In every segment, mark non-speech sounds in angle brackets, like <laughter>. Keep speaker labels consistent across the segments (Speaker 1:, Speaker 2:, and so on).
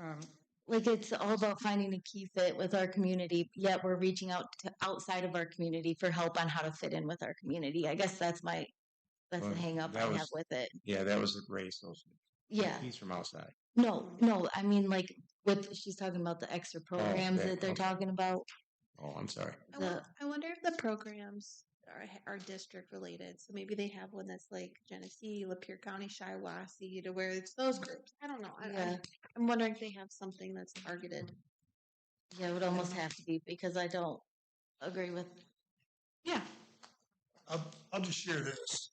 Speaker 1: Um, like it's all about finding a key fit with our community, yet we're reaching out to outside of our community for help on how to fit in with our community. I guess that's my that's
Speaker 2: Well,
Speaker 1: the hang up
Speaker 2: that
Speaker 1: I
Speaker 2: was-
Speaker 1: have with it.
Speaker 2: Yeah, that was Ray's social.
Speaker 1: Yeah.
Speaker 2: He's from outside.
Speaker 1: No, no, I mean like with she's talking about the extra programs
Speaker 2: Oh, okay,
Speaker 1: that they're
Speaker 2: okay.
Speaker 1: talking about.
Speaker 2: Oh, I'm sorry.
Speaker 3: I, won-
Speaker 1: The-
Speaker 3: I wonder if the programs are are district related. So maybe they have one that's like Genesee, Lapeer County, Shiawassee, to where it's those groups. I don't know. I,
Speaker 1: Yeah.
Speaker 3: I'm, I'm wondering if they have something that's targeted.
Speaker 1: Yeah, it would almost have to be because I don't agree with
Speaker 3: Yeah.
Speaker 4: I'll, I'll just share this.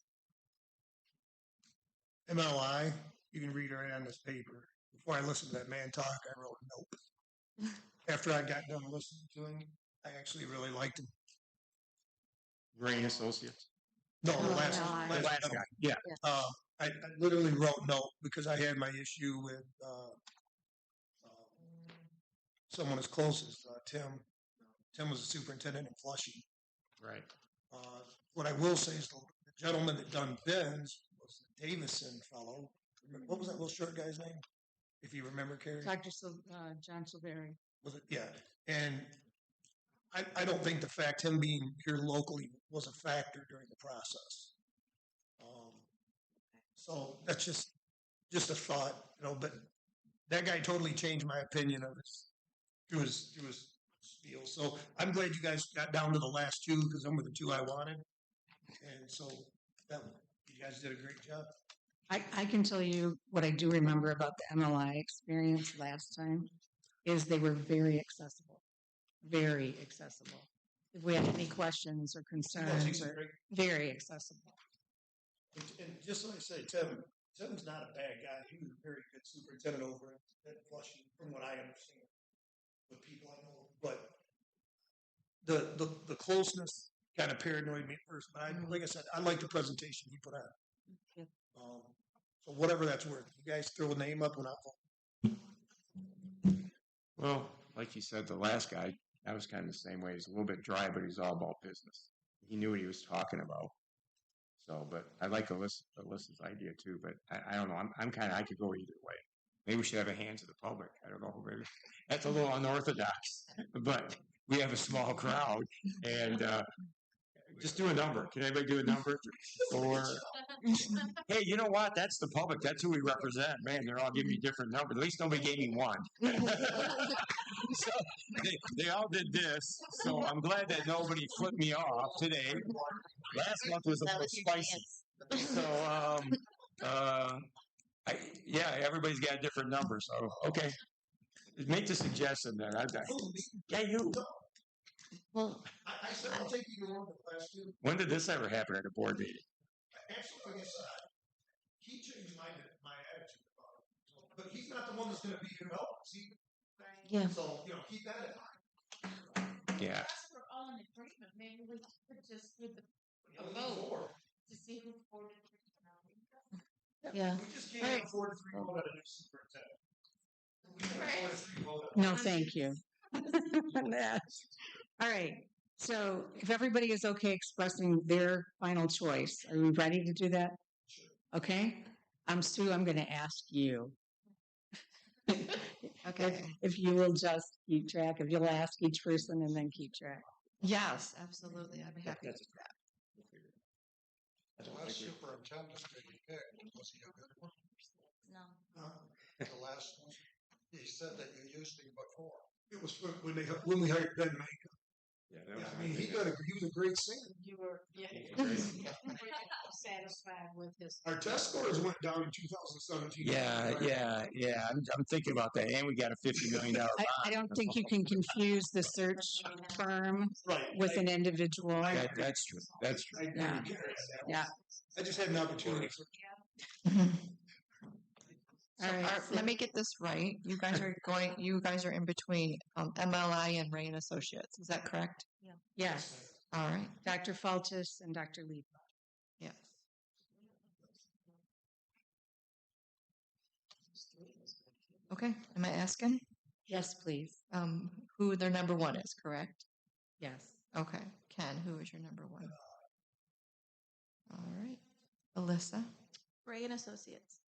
Speaker 4: MLI, you can read right on this paper. Before I listened to that man talk, I wrote nope. After I got done listening to him, I actually really liked him.
Speaker 2: Ray and Associates.
Speaker 4: No, the last,
Speaker 1: MLI.
Speaker 4: last,
Speaker 2: Last guy. Yeah.
Speaker 4: Uh, I, I literally wrote nope because I had my issue with uh, uh, someone as close as uh, Tim. Tim was the superintendent in Flushing.
Speaker 2: Right.
Speaker 4: Uh, what I will say is the the gentleman that done Ben's was the Davison fellow. What was that little short guy's name? If you remember, Carrie?
Speaker 5: Dr. Sil- uh, John Silveri.
Speaker 4: Was it? Yeah. And I, I don't think the fact him being here locally was a factor during the process. Um, so that's just just a thought, you know. But that guy totally changed my opinion of his through his through his spiel. So I'm glad you guys got down to the last two because them were the two I wanted. And so that you guys did a great job.
Speaker 5: I, I can tell you what I do remember about the MLI experience last time is they were very accessible, very accessible. If we had any questions or
Speaker 4: You guys
Speaker 5: concerns,
Speaker 4: did
Speaker 5: or
Speaker 4: great.
Speaker 5: very accessible.
Speaker 4: And, and just like I say, Tim, Tim's not a bad guy. He was a very good superintendent over at, at Flushing, from what I understand, with people I know. But the the, the closeness kind of paranoid me at first. But I, like I said, I like the presentation he put on.
Speaker 5: Yep.
Speaker 4: Um, so whatever that's worth, you guys throw a name up when I
Speaker 2: Well, like you said, the last guy, I was kind of the same way. He's a little bit dry, but he's all about business. He knew what he was talking about. So, but I like Alyssa, Alyssa's idea too. But I, I don't know. I'm, I'm kind of I could go either way. Maybe we should have a hand to the public. I don't know. Maybe that's a little unorthodox, but we have a small crowd, and uh, just do a number. Can anybody do a number? Or hey, you know what? That's the public. That's who we represent. Man, they're all giving me different numbers. At least nobody gave me one. <laughs> so they, they all did this. So I'm glad that nobody flipped me off today. Last month was a
Speaker 1: that
Speaker 2: little
Speaker 1: was your
Speaker 2: spicy.
Speaker 1: chance.
Speaker 2: So um, uh, I, yeah, everybody's got a different number. So okay, make the suggestion then. I, I, yeah, you.
Speaker 1: Well,
Speaker 4: I, I said I'll take you to one of the last two.
Speaker 2: When did this ever happen at a board meeting?
Speaker 4: Actually, like I said, I- he changed my my attitude about it. So- But he's not the one that's going to be here to help us. He,
Speaker 1: yeah.
Speaker 4: So you know, keep that in mind.
Speaker 2: Yeah,
Speaker 6: Unless we're all in agreement, maybe we could just do the,
Speaker 4: You know, there's four.
Speaker 6: to see who voted for the county.
Speaker 1: Yeah.
Speaker 4: We just can't
Speaker 5: Right.
Speaker 4: afford to three
Speaker 2: Oh.
Speaker 4: vote out of new superintendent. We can't afford to three vote out.
Speaker 5: No, thank you. <laughs> All right. So if everybody is okay expressing their final choice, are we ready to do that? Okay. Um, Sue, I'm going to ask you. If, if you will just keep track, if you'll ask each person and then keep track.
Speaker 6: Yes, absolutely, I'd be happy to do that.
Speaker 7: The last superintendent that he picked, was he a good
Speaker 2: <laughs>
Speaker 7: one?
Speaker 1: No.
Speaker 7: The last one? He said that you used him before.
Speaker 4: It was when- when they when we hired Ben May.
Speaker 2: yeah.
Speaker 4: Yeah, I mean, he got a, he was a great singer.
Speaker 6: You were, yeah. Satisfied with his.
Speaker 4: Our test scores went down in 2017.
Speaker 2: Yeah, yeah, yeah. I'm, I'm thinking about that, and we got a fifty million dollar.
Speaker 5: I, I don't think you can confuse the search firm
Speaker 4: Right.
Speaker 5: with an individual.
Speaker 2: That, that's true. That's true.
Speaker 4: I, I,
Speaker 5: Yeah. Yeah.
Speaker 4: I just had an opportunity.
Speaker 6: So are- let me get this right, you guys are going, you guys are in between, um, MLI and Ray and Associates, is that correct?
Speaker 5: Yes,
Speaker 6: All right,
Speaker 5: Dr. Faltis and Dr. Lee.
Speaker 6: yes. Okay, am I asking,
Speaker 5: Yes, please.
Speaker 6: um, who their number one is, correct?
Speaker 5: Yes.
Speaker 6: Okay, Ken, who is your number one? All right, Alyssa.
Speaker 3: Ray and Associates.